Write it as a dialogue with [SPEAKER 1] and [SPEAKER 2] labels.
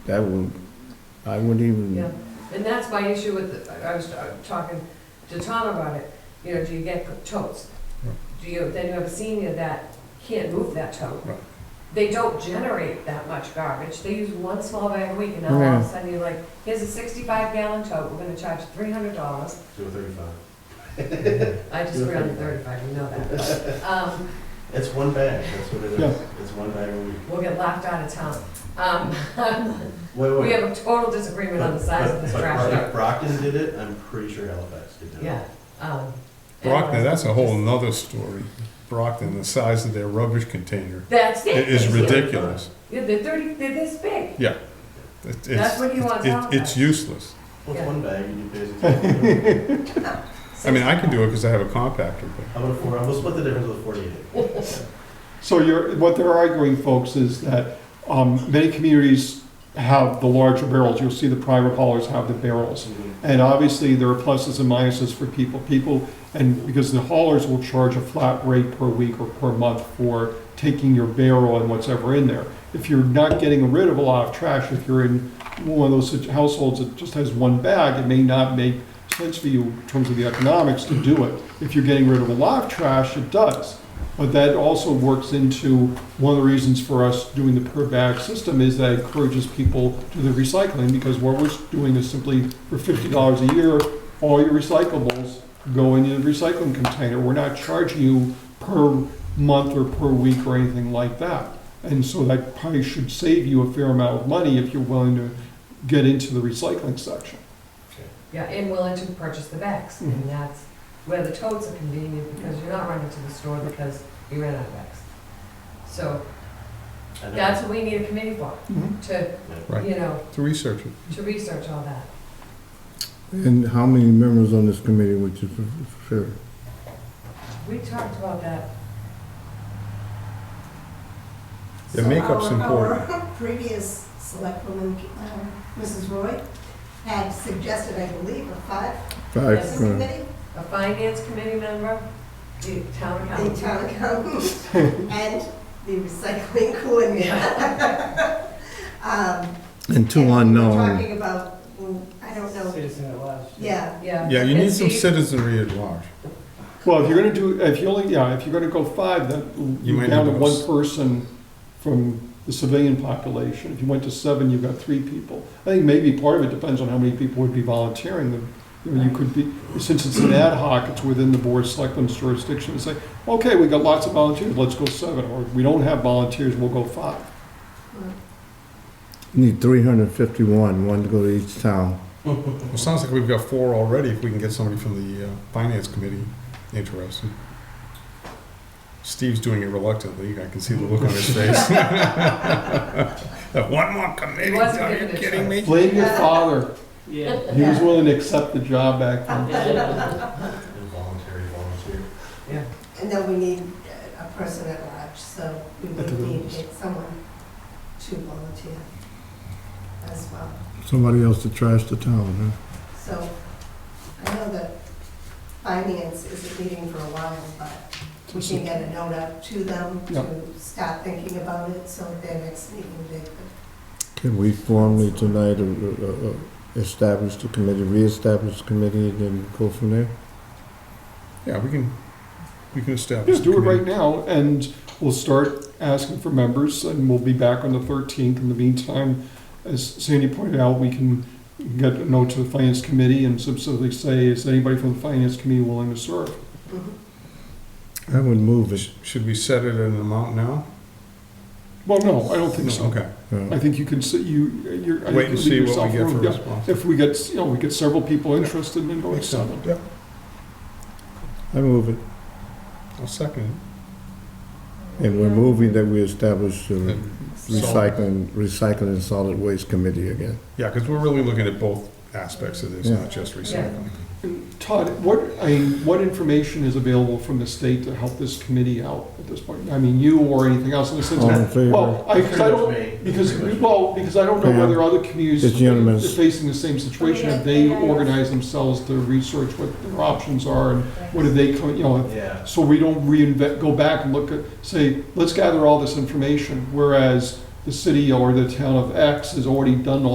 [SPEAKER 1] That would, I wouldn't
[SPEAKER 2] Yeah,
[SPEAKER 3] Mm.
[SPEAKER 1] even,
[SPEAKER 2] and that's my issue with, the- I was uh, talking to Tom about it, you know, do you get totes?
[SPEAKER 3] Right.
[SPEAKER 2] Do you, then you have a senior that can't move that tote.
[SPEAKER 3] Right.
[SPEAKER 2] They don't generate that much garbage, they use one small bag a week, and now all of a
[SPEAKER 1] Yeah.
[SPEAKER 2] sudden you're like, here's a sixty-five gallon tote, we're gonna charge three hundred dollars.
[SPEAKER 4] Two thirty-five.
[SPEAKER 2] I just rounded thirty-five, you know that. Um,
[SPEAKER 4] It's one bag, that's what it is.
[SPEAKER 3] Yeah.
[SPEAKER 4] It's one bag a week.
[SPEAKER 2] we'll get laughed out of town. Um,
[SPEAKER 4] Wait, wait.
[SPEAKER 2] we have a total disagreement on the size of this
[SPEAKER 4] But- but
[SPEAKER 2] trash
[SPEAKER 4] Brock-
[SPEAKER 2] truck,
[SPEAKER 4] Brockton did it, I'm pretty sure Halifax did it.
[SPEAKER 2] yeah. um,
[SPEAKER 3] Brockton,
[SPEAKER 2] anyways.
[SPEAKER 3] that's a whole nother story. Brockton, the size of their rubbish container
[SPEAKER 2] That's it.
[SPEAKER 3] it is
[SPEAKER 2] Thank you.
[SPEAKER 3] ridiculous.
[SPEAKER 2] Yeah, they're thirty, they're this big.
[SPEAKER 3] Yeah. It-
[SPEAKER 2] That's
[SPEAKER 3] it's-
[SPEAKER 2] what he wants
[SPEAKER 3] it-
[SPEAKER 2] out of
[SPEAKER 3] It's
[SPEAKER 2] us.
[SPEAKER 3] useless.
[SPEAKER 4] Well,
[SPEAKER 2] Yeah.
[SPEAKER 4] it's one bag, you basically.
[SPEAKER 3] I mean, I can do it because I have a compactor,
[SPEAKER 4] How about a four, we'll split the difference with a forty-eight.
[SPEAKER 5] So you're, what they're arguing, folks, is that um, many communities have the larger barrels. You'll see the private haulers have the barrels. And obviously, there are pluses and minuses for people. People, and because the haulers will charge a flat rate per week or per month for taking your barrel and what's ever in there. If you're not getting rid of a lot of trash, if you're in one of those such- households that just has one bag, it may not make sense for you in terms of the economics to do it. If you're getting rid of a lot of trash, it does. But that also works into one of the reasons for us doing the per bag system is that encourages people to the recycling because what we're doing is simply for fifty dollars a year, all your recyclables go into the recycling container. We're not charging you per month or per week or anything like that. And so that probably should save you a fair amount of money if you're willing to get into the recycling section.
[SPEAKER 2] Yeah, and willing to purchase the bags,
[SPEAKER 3] Mm-hmm.
[SPEAKER 2] and that's where the totes are convenient, because you're not running to the store because you ran out of bags. So
[SPEAKER 4] I know.
[SPEAKER 2] that's what we need a committee for, to,
[SPEAKER 3] Right.
[SPEAKER 2] you know,
[SPEAKER 3] but to research it.
[SPEAKER 2] to research all that.
[SPEAKER 1] and how many members on this committee would you prefer?
[SPEAKER 2] We talked about that.
[SPEAKER 3] Yeah,
[SPEAKER 6] So
[SPEAKER 3] makeup's
[SPEAKER 6] our-
[SPEAKER 3] important.
[SPEAKER 6] Our previous select woman, um, Mrs. Roy, had suggested, I believe, a five-person
[SPEAKER 1] Five,
[SPEAKER 2] Yes.
[SPEAKER 1] uh,
[SPEAKER 6] committee,
[SPEAKER 2] A finance committee member, the town
[SPEAKER 6] the
[SPEAKER 2] accountant.
[SPEAKER 6] town accountant, and the recycling coordinator. Um,
[SPEAKER 1] and two
[SPEAKER 6] and we were
[SPEAKER 1] unknown.
[SPEAKER 6] Talking about, well, I don't know,
[SPEAKER 7] Citizen at large.
[SPEAKER 6] yeah,
[SPEAKER 2] Yeah.
[SPEAKER 3] Yeah, you need
[SPEAKER 2] And
[SPEAKER 3] some
[SPEAKER 2] Steve-
[SPEAKER 3] citizenry at large.
[SPEAKER 5] Well, if you're gonna do, if you only, yeah, if you're gonna go five, then
[SPEAKER 3] You
[SPEAKER 5] you're
[SPEAKER 3] might
[SPEAKER 5] down to
[SPEAKER 3] need
[SPEAKER 5] one
[SPEAKER 3] those.
[SPEAKER 5] person from the civilian population. If you went to seven, you've got three people. I think maybe part of it depends on how many people would be volunteering. The- You know, you could be, since it's an ad hoc, it's within the board of selectmen's jurisdiction, to say, okay, we got lots of volunteers, let's go seven, or we don't have volunteers, we'll go five.
[SPEAKER 1] Need three hundred and fifty-one, one to go to each town.
[SPEAKER 3] Well, sounds like we've got four already if we can get somebody from the uh, finance committee interested. Steve's doing it reluctantly. I can see the look on his face. One more committee?
[SPEAKER 2] wasn't
[SPEAKER 3] Are
[SPEAKER 2] giving
[SPEAKER 3] you
[SPEAKER 2] it a
[SPEAKER 3] kidding me?
[SPEAKER 5] Blame your father.
[SPEAKER 7] Yeah.
[SPEAKER 5] He was willing to accept the job back then.
[SPEAKER 4] Involuntary volunteer.
[SPEAKER 6] and then we need uh, a person at large, so we
[SPEAKER 5] At the
[SPEAKER 6] would need
[SPEAKER 5] rooms.
[SPEAKER 6] someone to volunteer as well.
[SPEAKER 1] Somebody else to trash the town, huh?
[SPEAKER 6] So I know that finance is a meeting for a while, but we can get a note out to them
[SPEAKER 5] Yeah.
[SPEAKER 6] to start thinking about it, so at their next meeting, they could
[SPEAKER 1] Can we formally tonight uh, uh, uh, establish the committee, reestablish the committee, and then go from there?
[SPEAKER 3] Yeah, we can, we can establish.
[SPEAKER 5] Just do it
[SPEAKER 3] a committee.
[SPEAKER 5] right now, and we'll start asking for members, and we'll be back on the 13th. In the meantime, as Sandy pointed out, we can get a note to the Finance Committee and specifically say, is anybody from the Finance Committee willing to serve?
[SPEAKER 1] I would move it.
[SPEAKER 3] Sh- Should we set it at an amount now?
[SPEAKER 5] Well, no, I don't think
[SPEAKER 3] No,
[SPEAKER 5] so.
[SPEAKER 3] Okay.
[SPEAKER 5] I
[SPEAKER 1] Uh,
[SPEAKER 5] think you can, sit- you, you're. I think
[SPEAKER 3] Wait and
[SPEAKER 5] you
[SPEAKER 3] see
[SPEAKER 5] leave yourself
[SPEAKER 3] what we get for
[SPEAKER 5] room. Yeah.
[SPEAKER 3] response.
[SPEAKER 5] If we get, you know, we get several people interested, then go to
[SPEAKER 3] Makes sense.
[SPEAKER 5] seven.
[SPEAKER 3] Yep,
[SPEAKER 1] I move it.
[SPEAKER 3] I'll second
[SPEAKER 1] And we're moving that we establish
[SPEAKER 3] it.
[SPEAKER 1] the recycling, recycling and solid waste committee again.
[SPEAKER 3] Yeah, because we're really looking at both aspects of this,
[SPEAKER 1] Yeah.
[SPEAKER 3] not just recycling.
[SPEAKER 5] Todd, what, I mean, what information is available from the state to help this committee out at this point? I mean, you or anything else in the sense
[SPEAKER 1] All in
[SPEAKER 5] of,
[SPEAKER 3] Oh,
[SPEAKER 1] favor?
[SPEAKER 5] well, I, 'cause I
[SPEAKER 4] Pretty much
[SPEAKER 5] don't,
[SPEAKER 4] me.
[SPEAKER 5] because,
[SPEAKER 4] Pretty much me.
[SPEAKER 5] well, because I don't know
[SPEAKER 1] Yeah.
[SPEAKER 5] whether other communities
[SPEAKER 1] It's
[SPEAKER 5] are
[SPEAKER 1] unanimous.
[SPEAKER 5] facing the same situation, if they organize themselves to research what their options are and what do they, come- you know,
[SPEAKER 4] Yeah.
[SPEAKER 5] so we don't reinvent, go back and look at, say, let's gather all this information, whereas the city or the town of X has already done all